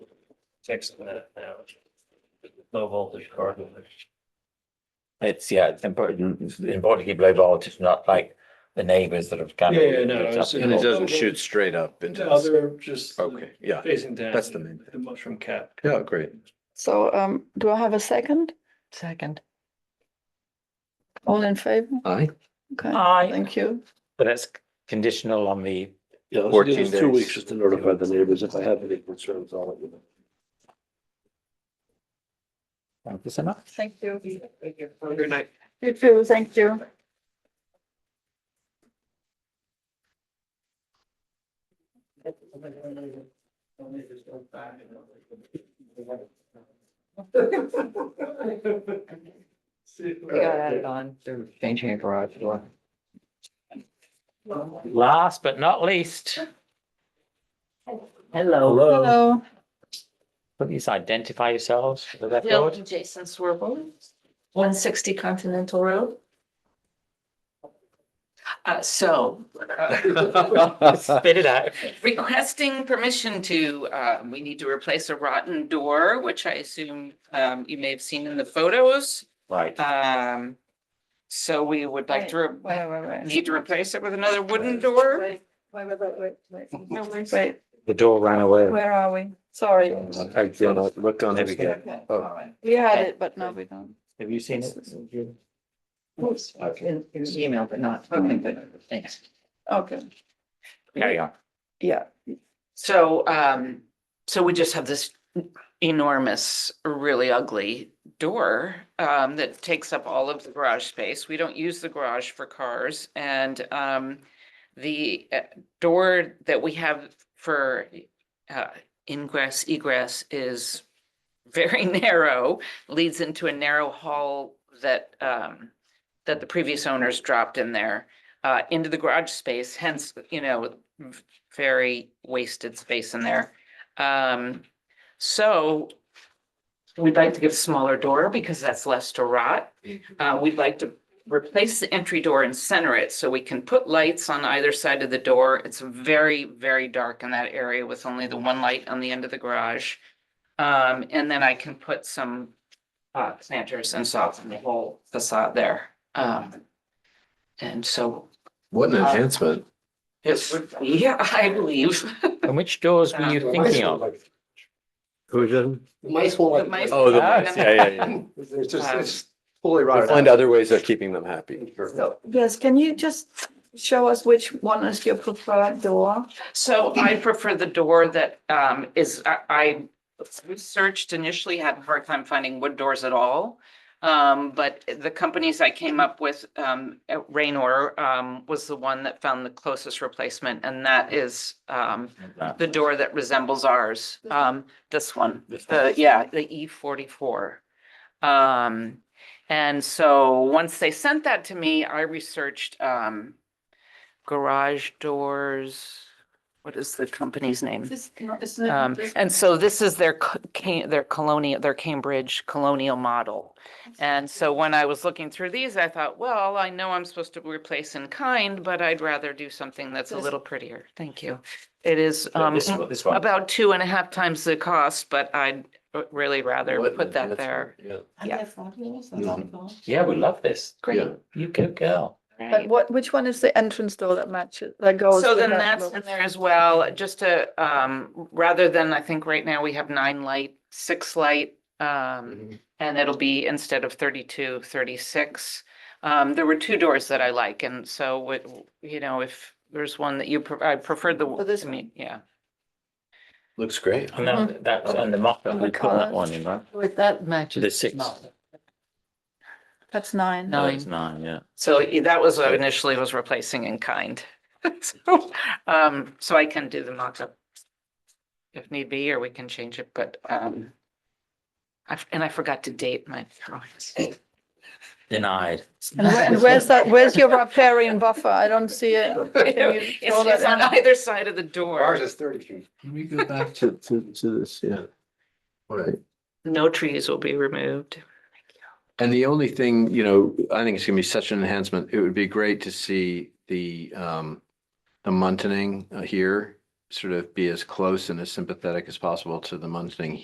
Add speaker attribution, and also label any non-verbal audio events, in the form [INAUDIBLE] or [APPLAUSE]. Speaker 1: fixing that now. Low voltage car.
Speaker 2: It's, yeah, it's important, it's important to keep low voltage, not like the neighbors that have kind of.
Speaker 1: Yeah, yeah, no, I was-
Speaker 3: And it doesn't shoot straight up into,
Speaker 1: No,
Speaker 3: the-
Speaker 1: they're just
Speaker 3: okay, yeah,
Speaker 1: facing down.
Speaker 3: That's the main
Speaker 1: The mushroom cap. [LAUGHS]
Speaker 3: yeah, great.
Speaker 4: So um, do I have a second?
Speaker 5: Second.
Speaker 4: All in favor?
Speaker 3: Aye.
Speaker 4: Okay,
Speaker 5: Aye.
Speaker 4: thank you.
Speaker 2: But that's conditional on the,
Speaker 6: Yeah, let's give
Speaker 3: 14
Speaker 6: us two
Speaker 3: days.
Speaker 6: weeks just to notify the neighbors. If I have any concerns, I'll let you know.
Speaker 2: thank you so much.
Speaker 4: Thank you.
Speaker 1: Good night.
Speaker 4: You too, thank you.
Speaker 5: We got added on, they're changing a garage door.
Speaker 2: Last but not least,
Speaker 5: Hello.
Speaker 4: Hello.
Speaker 2: please identify yourselves for the record.
Speaker 5: Jason Swerble, one sixty Continental Road. Uh, so, [LAUGHS]
Speaker 2: Spit it out.
Speaker 7: requesting permission to, uh, we need to replace a rotten door, which I assume, um, you may have seen in the photos.
Speaker 2: Right.
Speaker 7: Um, so we would like to, re-
Speaker 4: Wait, wait, wait.
Speaker 7: need to replace it with another wooden door.
Speaker 4: Wait, wait, wait, wait, wait,
Speaker 7: No
Speaker 4: wait.
Speaker 7: worries.
Speaker 4: Wait,
Speaker 2: The door ran away.
Speaker 4: where are we? Sorry.
Speaker 3: I did not look on
Speaker 2: There
Speaker 3: it
Speaker 2: we
Speaker 3: again.
Speaker 2: go.
Speaker 4: Okay,
Speaker 3: Oh.
Speaker 4: all right. We had it, but now we don't.
Speaker 2: Have you seen it?
Speaker 5: in, in email, but not, okay, but thanks.
Speaker 4: Okay,
Speaker 2: Carry on.
Speaker 4: yeah.
Speaker 7: So, um, so we just have this enormous, really ugly door, um, that takes up all of the garage space. We don't use the garage for cars and, um, the uh, door that we have for, uh, ingress egress is very [LAUGHS] narrow, leads into a narrow hall that, um, that the previous owners dropped in there, uh, into the garage space, hence, you know, v- very wasted space in there. Um, so we'd like to give a smaller door because that's less to rot. Uh, we'd like to replace the entry door and center it so we can put lights on either side of the door. It's very, very dark in that area with only the one light on the end of the garage. Um, and then I can put some uh, planters and soften the whole facade there. Um, and so
Speaker 3: What an enhancement.
Speaker 7: it would [LAUGHS] be, I believe.
Speaker 2: And which doors were you thinking of?
Speaker 3: Who did?
Speaker 6: Mice will
Speaker 7: The mice-
Speaker 3: Oh, the,
Speaker 2: Ah.
Speaker 3: yeah, yeah,
Speaker 6: [LAUGHS]
Speaker 3: yeah.
Speaker 6: It's
Speaker 7: just- it's
Speaker 6: fully
Speaker 3: We'll Find other ways of keeping them
Speaker 6: [LAUGHS]
Speaker 3: happy.
Speaker 4: So, yes, can you just show us which one is your preferred door?
Speaker 7: So I prefer the door that um is, I- I researched initially, had a hard time finding wood doors at all. Um, but the companies I came up with, um, at Raynor, um, was the one that found the closest replacement. And that is um the door that resembles ours, um, this one, the, yeah, the E forty-four. Um, and so once they sent that to me, I researched, um, garage doors. What is the company's name?
Speaker 4: This, no, it's
Speaker 7: Um,
Speaker 4: not. this-
Speaker 7: and so this is their, co- ca- their colonial, their Cambridge colonial model. And so when I was looking through these, I thought, well, I know I'm supposed to replace in kind, but I'd rather do something that's a
Speaker 4: This-
Speaker 7: little prettier. Thank you. It is, um,
Speaker 2: This one, this one.
Speaker 7: about two and a half times the cost, but I'd r- really rather
Speaker 3: What an
Speaker 7: put that
Speaker 3: enhancement,
Speaker 7: there.
Speaker 3: Yeah.
Speaker 4: Are
Speaker 7: yeah.
Speaker 4: they fabulous? That's
Speaker 3: Mhm.
Speaker 4: cool.
Speaker 2: Yeah, we love this.
Speaker 7: Great.
Speaker 3: Yeah.
Speaker 2: You go girl.
Speaker 4: But what, which one is the entrance door that matches, that goes?
Speaker 7: So
Speaker 4: with
Speaker 7: then
Speaker 4: that
Speaker 7: that's
Speaker 4: look?
Speaker 7: in there as well, just to, um, rather than, I think right now we have nine light, six light. Um, and it'll be instead of 32, 36. Um, there were two doors that I like, and so what, you know, if there's one that you, pre- I preferred the,
Speaker 4: Oh, this
Speaker 7: I mean, yeah.
Speaker 3: Looks great.
Speaker 2: And that, that, and the mock-up,
Speaker 4: And the
Speaker 2: we put that
Speaker 4: colours.
Speaker 2: one in, right?
Speaker 5: With that matches.
Speaker 2: The six.
Speaker 5: model.
Speaker 4: That's nine.
Speaker 2: No, it's nine, yeah.
Speaker 7: So i- that was what initially was replacing in kind. [LAUGHS] So, um, so I can do the mock-up if need be, or we can change it, but, um, I, f- and I forgot to date my drawings.
Speaker 2: Denied.
Speaker 4: And where- and where's that, where's your riparian buffer? I don't see it. Can you
Speaker 7: [LAUGHS] [LAUGHS] It's
Speaker 4: show that
Speaker 7: it's on
Speaker 4: in?
Speaker 7: either side of the door.
Speaker 6: is thirty feet.
Speaker 3: Can we go back to, to, to this? Yeah. [LAUGHS] All right.
Speaker 7: No trees will be removed.
Speaker 3: And the only thing, you know, I think it's gonna be such an enhancement. It would be great to see the, um, the muntening uh, here sort of be as close and as sympathetic as possible to the muntening